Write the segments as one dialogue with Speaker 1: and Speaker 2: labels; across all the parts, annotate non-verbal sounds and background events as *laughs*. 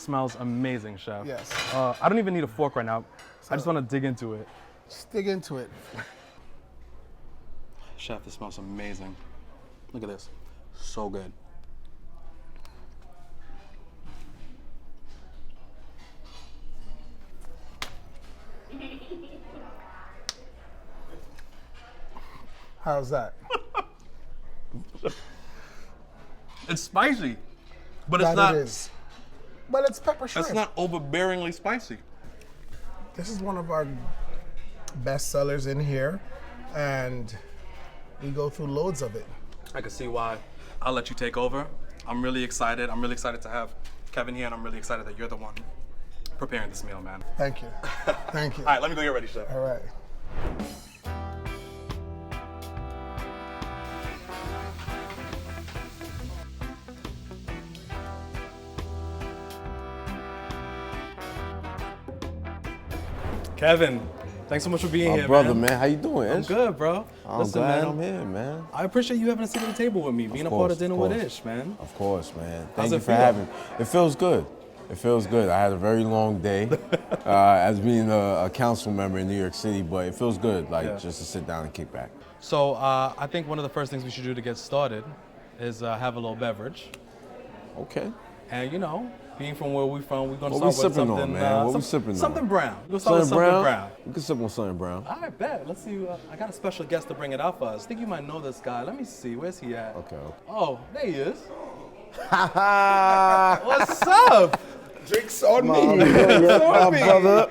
Speaker 1: smells amazing, chef.
Speaker 2: Yes.
Speaker 1: Uh, I don't even need a fork right now. I just want to dig into it.
Speaker 2: Stick into it.
Speaker 1: Chef, this smells amazing. Look at this. So good.
Speaker 2: How's that?
Speaker 1: It's spicy, but
Speaker 2: That
Speaker 1: it's not.
Speaker 2: it is. But it's pepper shrimp.
Speaker 1: It's not overbearingly spicy.
Speaker 2: this is one of our best sellers in here, and we go through loads of it.
Speaker 1: I can see why. I'll let you take over. I'm really excited. I'm really excited to have Kevin here, and I'm really excited that you're the one preparing this meal, man.
Speaker 2: Thank you. Thank you.
Speaker 1: *laughs* All right, let me go get ready, chef.
Speaker 2: All right.
Speaker 1: Kevin, thanks so much for being
Speaker 3: My
Speaker 1: here,
Speaker 3: brother,
Speaker 1: man.
Speaker 3: man. how you doing?
Speaker 1: I'm good, bro.
Speaker 3: I'm
Speaker 1: Listen,
Speaker 3: glad
Speaker 1: man,
Speaker 3: I'm here, man.
Speaker 1: I appreciate you having a seat at the table with me, being
Speaker 3: Of
Speaker 1: a part
Speaker 3: course,
Speaker 1: of dinner
Speaker 3: of
Speaker 1: with
Speaker 3: course.
Speaker 1: Ish, man.
Speaker 3: Of course, man. Thank
Speaker 1: How's
Speaker 3: you
Speaker 1: it
Speaker 3: for
Speaker 1: feel?
Speaker 3: having me. It feels good. It feels good. I had a very long day uh, as being a, a council member in New York City, but it feels good, like
Speaker 1: Yeah.
Speaker 3: just to sit down and kick back.
Speaker 1: So uh, I think one of the first things we should do to get started is uh, have a little beverage,
Speaker 3: Okay.
Speaker 1: and you know, being from where we're from, we're gonna
Speaker 3: What we
Speaker 1: start with
Speaker 3: sipping on,
Speaker 1: something,
Speaker 3: man?
Speaker 1: uh,
Speaker 3: What we
Speaker 1: some-
Speaker 3: sipping on?
Speaker 1: something brown. We're gonna start with something brown.
Speaker 3: We can sip on something brown.
Speaker 1: I bet. Let's see. Uh, I got a special guest to bring it out for us. think you might know this guy. Let me see. Where's he at?
Speaker 3: Okay. *laughs*
Speaker 1: Oh, there he is.
Speaker 3: Ha
Speaker 1: What's up?
Speaker 2: Drinks on
Speaker 3: My brother,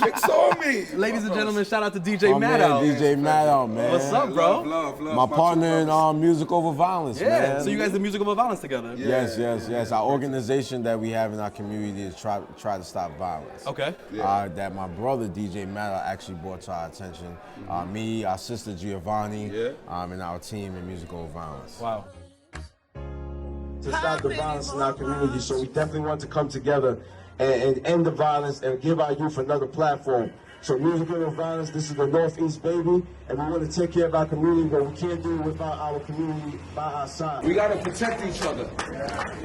Speaker 2: Drinks on me.
Speaker 1: Ladies and gentlemen, shout out to
Speaker 3: my
Speaker 1: DJ
Speaker 3: man,
Speaker 1: Maddow.
Speaker 3: DJ Maddow, man.
Speaker 1: What's up, bro?
Speaker 4: Love, love, love.
Speaker 3: My
Speaker 4: two
Speaker 3: partner in
Speaker 4: brothers.
Speaker 3: um, Music Over Violence,
Speaker 1: Yeah.
Speaker 3: man.
Speaker 1: So you guys did musical violence together.
Speaker 4: Yeah.
Speaker 3: Yes, yes, yes. Our organization that we have in our community is try try to stop violence.
Speaker 1: Okay.
Speaker 3: Uh, that my brother DJ Matter actually brought to our attention. Uh, me, our sister Giovanni,
Speaker 4: Mm-hmm. Yeah.
Speaker 3: um, and our team in musical violence.
Speaker 1: Wow.
Speaker 5: to stop the violence in our community. So we definitely want to come together and, and end the violence and give our youth another platform. So music and violence, this is the Northeast baby, and we want to take care of our community, but we can't do it without our community by our side.
Speaker 6: We gotta protect each other.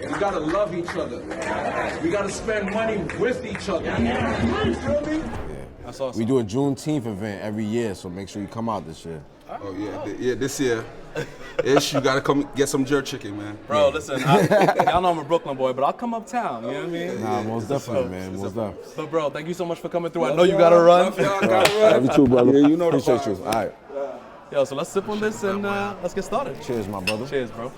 Speaker 6: We gotta love each other. We gotta spend money with each other. You feel me?
Speaker 1: That's awesome.
Speaker 3: We do a Juneteenth event every year, so make sure you come out this year.
Speaker 4: Oh yeah, th- yeah. This year, ish, you gotta come get some jerk chicken, man.
Speaker 1: Bro, listen, I, *laughs* y'all know I'm a Brooklyn boy, but I'll come uptown. You know what I mean?
Speaker 3: Nah, most definitely,
Speaker 4: a-
Speaker 3: man.
Speaker 4: it's
Speaker 3: Most
Speaker 4: a-
Speaker 3: definitely.
Speaker 1: But bro, thank you so much for coming through. I know you gotta
Speaker 4: Love
Speaker 1: run.
Speaker 4: y'all, gotta run.
Speaker 3: Love you too, brother.
Speaker 4: Yeah, you know the
Speaker 3: Appreciate
Speaker 4: vibes,
Speaker 3: you. All right.
Speaker 1: Yo, so let's sip on this and uh, let's get started.
Speaker 3: Cheers, my brother.
Speaker 1: Cheers, bro.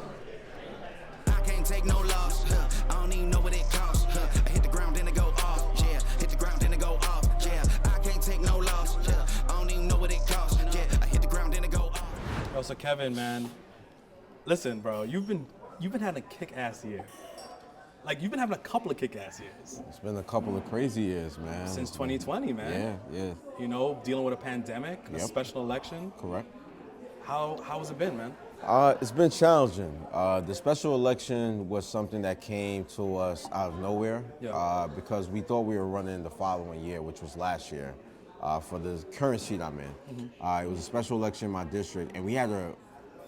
Speaker 7: I can't take no loss. Huh. I don't even know what it costs. Huh. I hit the ground then it go off. Yeah, hit the ground then it go off. Yeah, I can't take no loss. Yeah, I don't even know what it costs. Yeah, I hit the ground then it go off.
Speaker 1: Yo, so Kevin, man, listen, bro, you've been you've been having a kick-ass year. Like you've been having a couple of kick-ass years
Speaker 3: It's been a couple of crazy years, man.
Speaker 1: since 2020,
Speaker 3: Yeah,
Speaker 1: man.
Speaker 3: yeah.
Speaker 1: You know, dealing with a pandemic, a
Speaker 3: Yep.
Speaker 1: special election.
Speaker 3: Correct.
Speaker 1: How how has it been, man?
Speaker 3: Uh, it's been challenging. Uh, the special election was something that came to us out of nowhere
Speaker 1: Yeah.
Speaker 3: uh, because we thought we were running the following year, which was last year, uh, for the current seat I'm in.
Speaker 1: Mm-hmm.
Speaker 3: Uh, it was a special election in my district, and we had to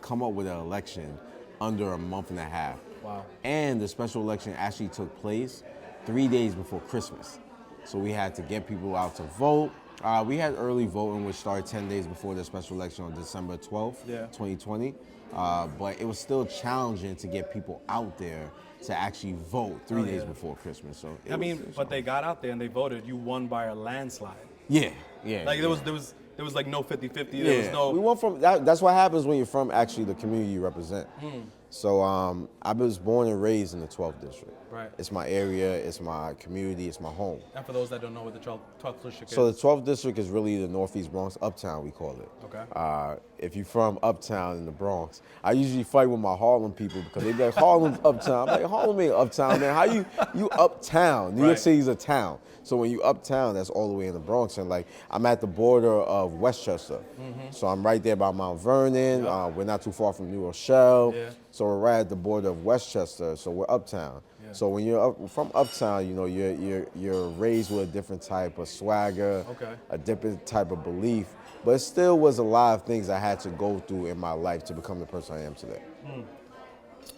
Speaker 3: come up with an election under a month and a half.
Speaker 1: Wow.
Speaker 3: And the special election actually took place three days before Christmas. So we had to get people out to vote. Uh, we had early voting, which started 10 days before the special election on December 12th,
Speaker 1: Yeah.
Speaker 3: 2020. Uh, but it was still challenging to get people out there to actually vote three
Speaker 1: Oh,
Speaker 3: days
Speaker 1: yeah.
Speaker 3: before Christmas. So it
Speaker 1: I
Speaker 3: was-
Speaker 1: mean, but they got out there and they voted. You won by a landslide.
Speaker 3: yeah, yeah.
Speaker 1: Like there was
Speaker 3: yeah.
Speaker 1: there was there was like no 50-50. There was no.
Speaker 3: we went from that, that's what happens when you're from actually the community you represent.
Speaker 1: Hmm.
Speaker 3: So um, I was born and raised in the 12th district.
Speaker 1: Right.
Speaker 3: It's my area. It's my community. It's my home.
Speaker 1: and for those that don't know what the 12th 12th district
Speaker 3: So
Speaker 1: is,
Speaker 3: the 12th district is really the Northeast Bronx, Uptown we call it.
Speaker 1: Okay.
Speaker 3: Uh, if you're from Uptown in the Bronx, I usually fight with my Harlem people because they be like Harlem's *laughs* Uptown. I'm like Harlem ain't Uptown, man. How you you Uptown? New
Speaker 1: Right.
Speaker 3: York City's a town. So when you Uptown, that's all the way in the Bronx, and like I'm at the border of Westchester,
Speaker 1: Mm-hmm.
Speaker 3: so I'm right there by Mount Vernon. Uh, we're not too far from New Rochelle.
Speaker 1: Yeah.
Speaker 3: So we're right at the border of Westchester, so we're uptown.
Speaker 1: Yeah.
Speaker 3: So when you're up, from uptown, you know you're you're you're raised with a different type of swagger,
Speaker 1: Okay.
Speaker 3: a different type of belief. But it still was a lot of things I had to go through in my life to become the person I am today.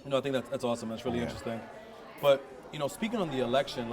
Speaker 1: you know, I think that's that's awesome. That's really
Speaker 3: Yeah.
Speaker 1: interesting. But you know, speaking on the election,